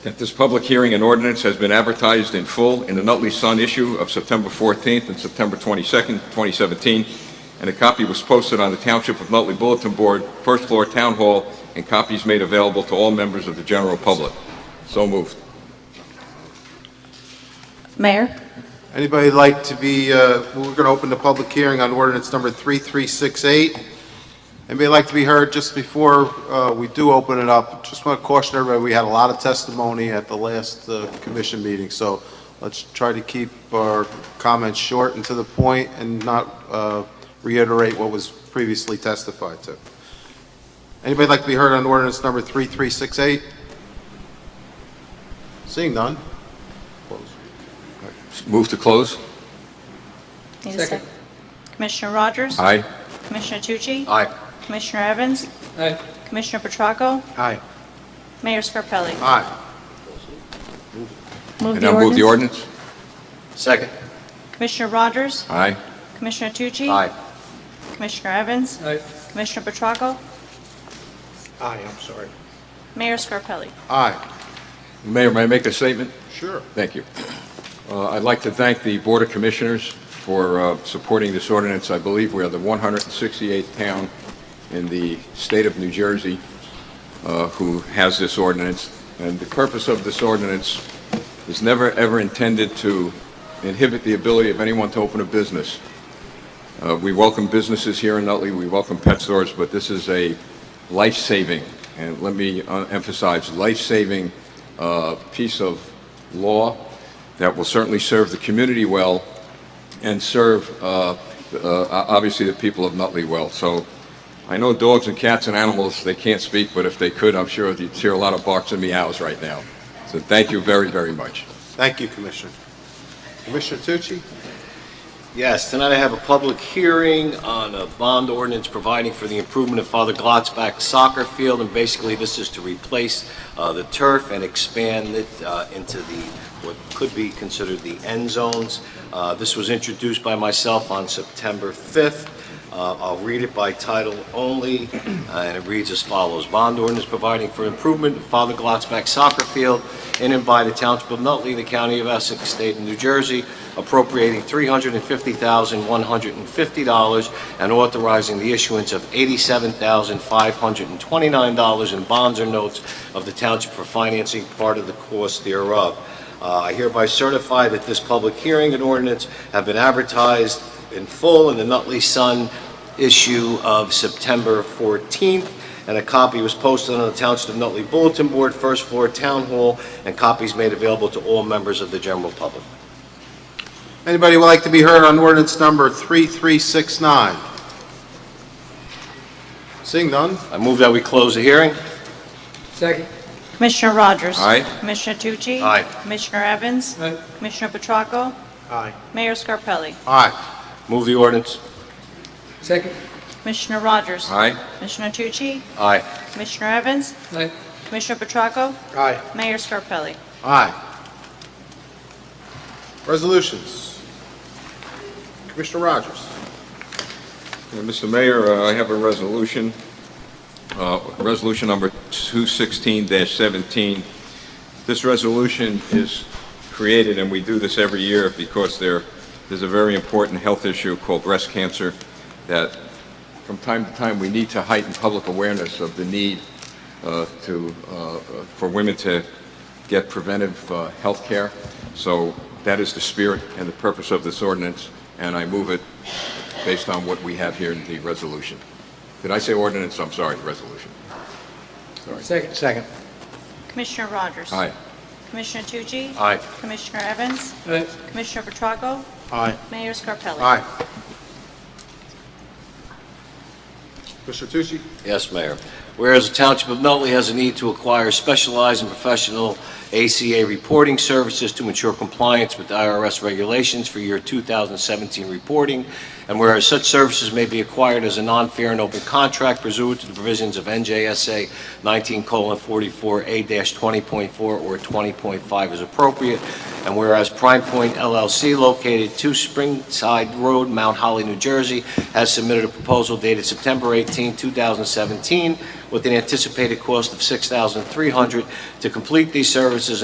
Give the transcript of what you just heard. At this public hearing, an ordinance has been advertised in full in the Nutley Sun issue of September 14th and September 22nd, 2017, and a copy was posted on the Township of Nutley Bulletin Board, First Floor Town Hall, and copies made available to all members of the general public. So moved. Mayor? Anybody like to be, uh, we're going to open the public hearing on ordinance number 3368. Anybody like to be heard just before uh, we do open it up? Just want to caution everybody, we had a lot of testimony at the last uh, commission meeting, so let's try to keep our comments short and to the point and not uh, reiterate what was previously testified to. Anybody like to be heard on ordinance number 3368? Seeing none? Close. Move to close? Need a Second. Commissioner Rogers? Aye. Commissioner Tucci? Aye. Commissioner Evans? Aye. Commissioner Petracco? Aye. Mayor Scarpelli? Aye. And now move the ordinance? Second. Commissioner Rogers? Aye. Commissioner Tucci? Aye. Commissioner Evans? Aye. Commissioner Petracco? Aye, I'm sorry. Mayor Scarpelli? Aye. Mayor, may I make a statement? Sure. Thank you. Uh, I'd like to thank the Board of Commissioners for uh, supporting this ordinance. I believe we are the 168th town in the state of New Jersey uh, who has this ordinance. And the purpose of this ordinance is never, ever intended to inhibit the ability of anyone to open a business. Uh, We welcome businesses here in Nutley, we welcome pet stores, but this is a life-saving, and let me uh, emphasize, life-saving uh, piece of law that will certainly serve the community well and serve, uh, uh, obviously, the people of Nutley well. So I know dogs and cats and animals, they can't speak, but if they could, I'm sure you'd hear a lot of barks and meows right now. So thank you very, very much. Thank you, Commissioner. Commissioner Tucci? Yes, tonight I have a public hearing on a bond ordinance providing for the improvement of Father Glotzback Soccer Field, and basically this is to replace uh, the turf and expand it uh, into the, what could be considered the end zones. Uh, This was introduced by myself on September 5th. Uh, I'll read it by title only, uh, and it reads as follows. Bond ordinance providing for improvement of Father Glotzback Soccer Field in and by the Township of Nutley, the County of Essex, State of New Jersey, appropriating $350,150 and authorizing the issuance of $87,529 in bonds or notes of the township for financing part of the cost thereof. Uh, I hereby certify that this public hearing and ordinance have been advertised in full in the Nutley Sun issue of September 14th, and a copy was posted on the Township of Nutley Bulletin Board, First Floor Town Hall, and copies made available to all members of the general public. Anybody would like to be heard on ordinance number 3369? Seeing none? I move that we close the hearing. Second. Commissioner Rogers? Aye. Commissioner Tucci? Aye. Commissioner Evans? Aye. Commissioner Petracco? Aye. Mayor Scarpelli? Aye. Move the ordinance. Second. Commissioner Rogers? Aye? Commissioner Tucci? Aye. Commissioner Evans? Aye. Commissioner Petracco? Aye. Mayor Scarpelli? Aye. Resolutions. Commissioner Rogers? Uh, Mr. Mayor, uh, I have a resolution, uh, Resolution Number 216-17. This resolution is created, and we do this every year because there, there's a very important health issue called breast cancer that from time to time, we need to heighten public awareness of the need uh, to, uh, for women to get preventive uh, health care. So that is the spirit and the purpose of this ordinance, and I move it based on what we have here in the resolution. Did I say ordinance? I'm sorry, resolution. Second. Second. Commissioner Rogers? Aye. Commissioner Tucci? Aye. Commissioner Evans? Aye. Commissioner Petracco? Aye. Mayor Scarpelli? Aye. Commissioner Tucci? Yes, Mayor. Whereas the Township of Nutley has a need to acquire specialized and professional ACA reporting services to ensure compliance with IRS regulations for year 2017 reporting, and whereas such services may be acquired as a non-fair and open contract pursuant to the provisions of NJSA 19:44A-20.4 or 20.5 as appropriate, and whereas Prime Point LLC, located 2 Springside Road, Mount Holly, New Jersey, has submitted a proposal dated September 18, 2017, with an anticipated cost of $6,300 to complete these services